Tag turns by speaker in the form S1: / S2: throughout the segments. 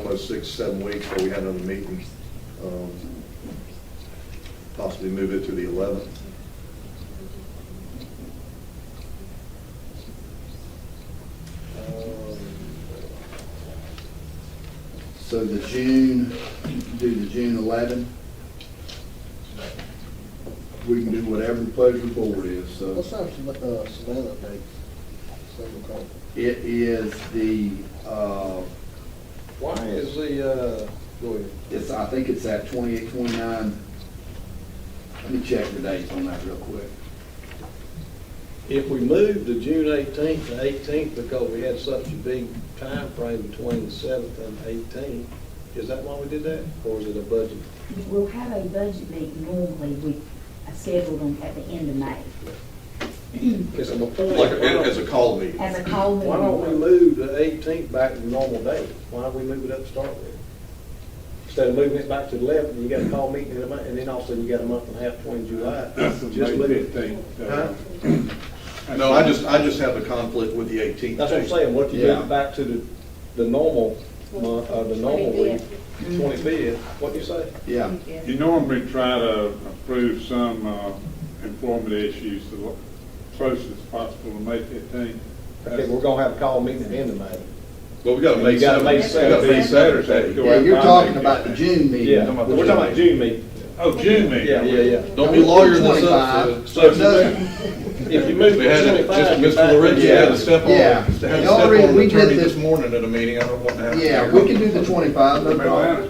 S1: another six, seven weeks, but we had another meeting. um, Possibly move it to the 11th.
S2: So the June, do the June 11. We can do whatever the pleasure of the board is, so
S3: What's our Sav- uh, Savannah date? Seven o'clock.
S2: it is the, uh,
S3: Why is the, uh, go ahead.
S2: it's, I think it's at 28, 29. Let me check the dates on that real quick.
S4: If we moved to June eighteenth to eighteenth because we had such a big time frame between the seventh and eighteenth, is that why we did that? Or is it a budget?
S5: We'll have a budget meeting normally, we scheduled them at the end of May,
S4: It's an appointment.
S1: Like, as a call meeting.
S5: as a call meeting.
S4: Why don't we move the eighteenth back to the normal date? Why don't we move it up to start with? Instead of moving it back to the eleventh, you got a call meeting in a month, and then also you got a month and a half between July.
S6: That's the
S4: Just move
S6: May
S4: it.
S6: fifteenth.
S4: Huh?
S1: No, I just, I just have a conflict with the 18th.
S4: That's what I'm saying, what if you move
S2: Yeah.
S4: it back to the, the normal month, uh, the normal week, twenty-fifth, what do you say?
S2: Yeah.
S6: You normally try to approve some uh, employment issues the lo- closest as possible to May fifteenth.
S4: Okay, we're gonna have a call meeting at the end of May.
S1: But we got to
S4: You
S1: make
S4: gotta
S1: Saturday.
S4: make Saturday.
S1: Saturday.
S2: Yeah, you're talking about the June meeting.
S1: Yeah.
S4: We're talking about June meeting.
S6: Oh, June meeting.
S4: Yeah, yeah, yeah.
S1: Don't be lawyering this up.
S2: 25.
S1: so-
S2: No.
S4: If you move
S1: We
S4: to
S1: had it, just
S4: twenty-five. you're
S1: Mr.
S4: back.
S1: Lorenzo had to step on,
S2: Yeah.
S1: had to step
S2: The only reason
S1: on the
S2: we did
S1: attorney
S2: this-
S1: this morning at a meeting, I don't want to have.
S2: Yeah, we can do the 25, no problem.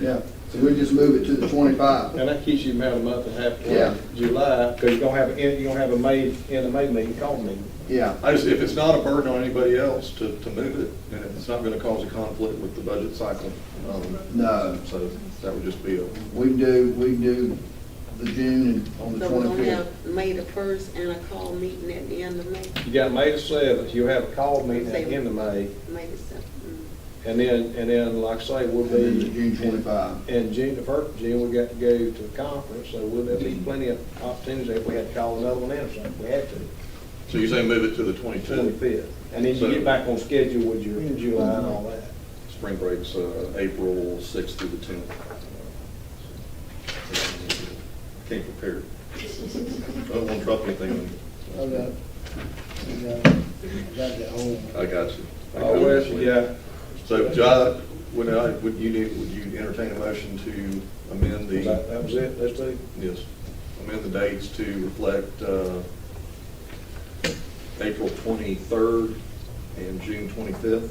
S2: Yeah, so we just move it to the 25.
S4: And that keeps you about a month and a half
S2: Yeah.
S4: to July, because you're gonna have, you're gonna have a May, end of May meeting, call meeting.
S2: Yeah,
S1: I just, if it's not a burden on anybody else to, to move it, and it's not going to cause a conflict with the budget cycle. um,
S2: No.
S1: So that would just be a,
S2: we can do, we can do the June and on the
S7: So we're gonna
S2: 25th.
S7: have May the first and a call meeting at the end of May,
S4: You got May the seventh, you'll have a call meeting at the end of May,
S7: May the seventh.
S4: and then, and then, like I say, we'll
S2: And then the
S4: be.
S2: June 25.
S4: In June, the first, June, we got to go to a conference, so we'll, there'll be plenty of opportunities if we had to call another one in or something, if we had to,
S1: so you're saying move it to the twenty-two,
S4: twenty-fifth. And then you get back on schedule with your July and all that.
S1: spring breaks, uh, April sixth through the tenth. Uh, Came prepared. I don't want to drop anything,
S3: I got, it. I got, it. I got that home.
S1: I got you. I got
S4: Oh, well, yeah.
S1: So, John, would I, would you, need- would you entertain a motion to amend the?
S4: That, that was it, that's two.
S1: Yes, amend the dates to reflect uh, April 23rd and June 25th.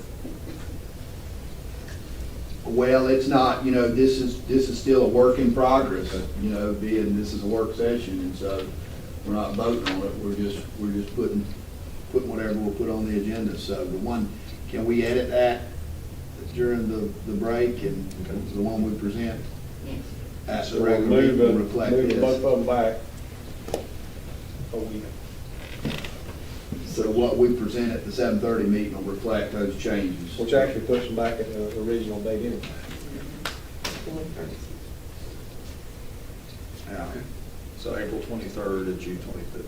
S2: Well, it's not, you know, this is, this is still a work in progress, uh, you know, being this is a work session, and so we're not voting on it, we're just, we're just putting, putting whatever we'll put on the agenda, so the one, can we edit that during the, the break and the one we present? At the
S4: So we're
S2: regular meeting will
S4: moving,
S2: reflect
S4: moving both
S2: this.
S4: of them back. a week.
S2: So what we present at the seven thirty meeting will reflect those changes.
S4: Which actually puts them back at the original date anyway.
S2: Yeah.
S1: So April 23rd and June 25th.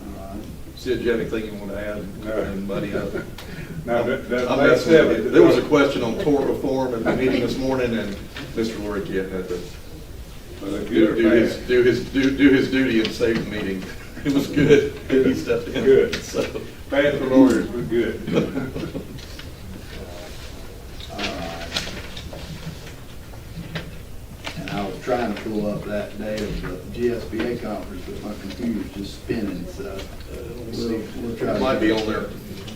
S2: All right.
S1: Sid, do you have anything you want to
S6: No.
S1: add and muddy up?
S6: Now, that, that.
S1: I'm
S6: May
S1: messing with you.
S6: 7th
S1: There was a question on tort reform in the meeting this morning, and Mr. Lorick had to
S6: Was it
S1: do
S6: good
S1: do
S6: or
S1: his,
S6: bad?
S1: do his, do do his duty and save the meeting. It was good. He stepped in.
S6: Good.
S1: So,
S6: Bad for lawyers, but good.
S2: And I was trying to pull up that day of the GSBA conference, but my computer's just spinning, so uh, we'll, we'll try.
S1: Uh, It
S2: to
S1: might be on there.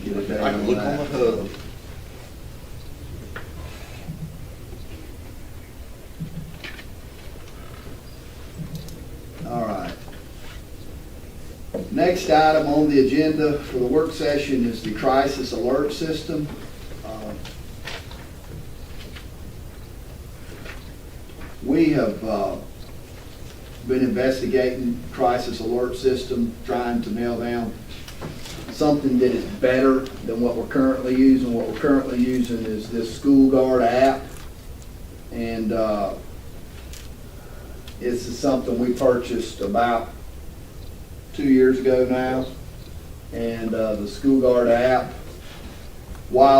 S2: Get a day
S1: I can
S2: on
S1: look on the
S2: that.
S1: hub.
S2: All right. Next item on the agenda for the work session is the crisis alert system. Um, We have uh, been investigating crisis alert system, trying to nail down something that is better than what we're currently using. What we're currently using is this School Guard app. And uh, this is something we purchased about two years ago now. And uh, the School Guard app, while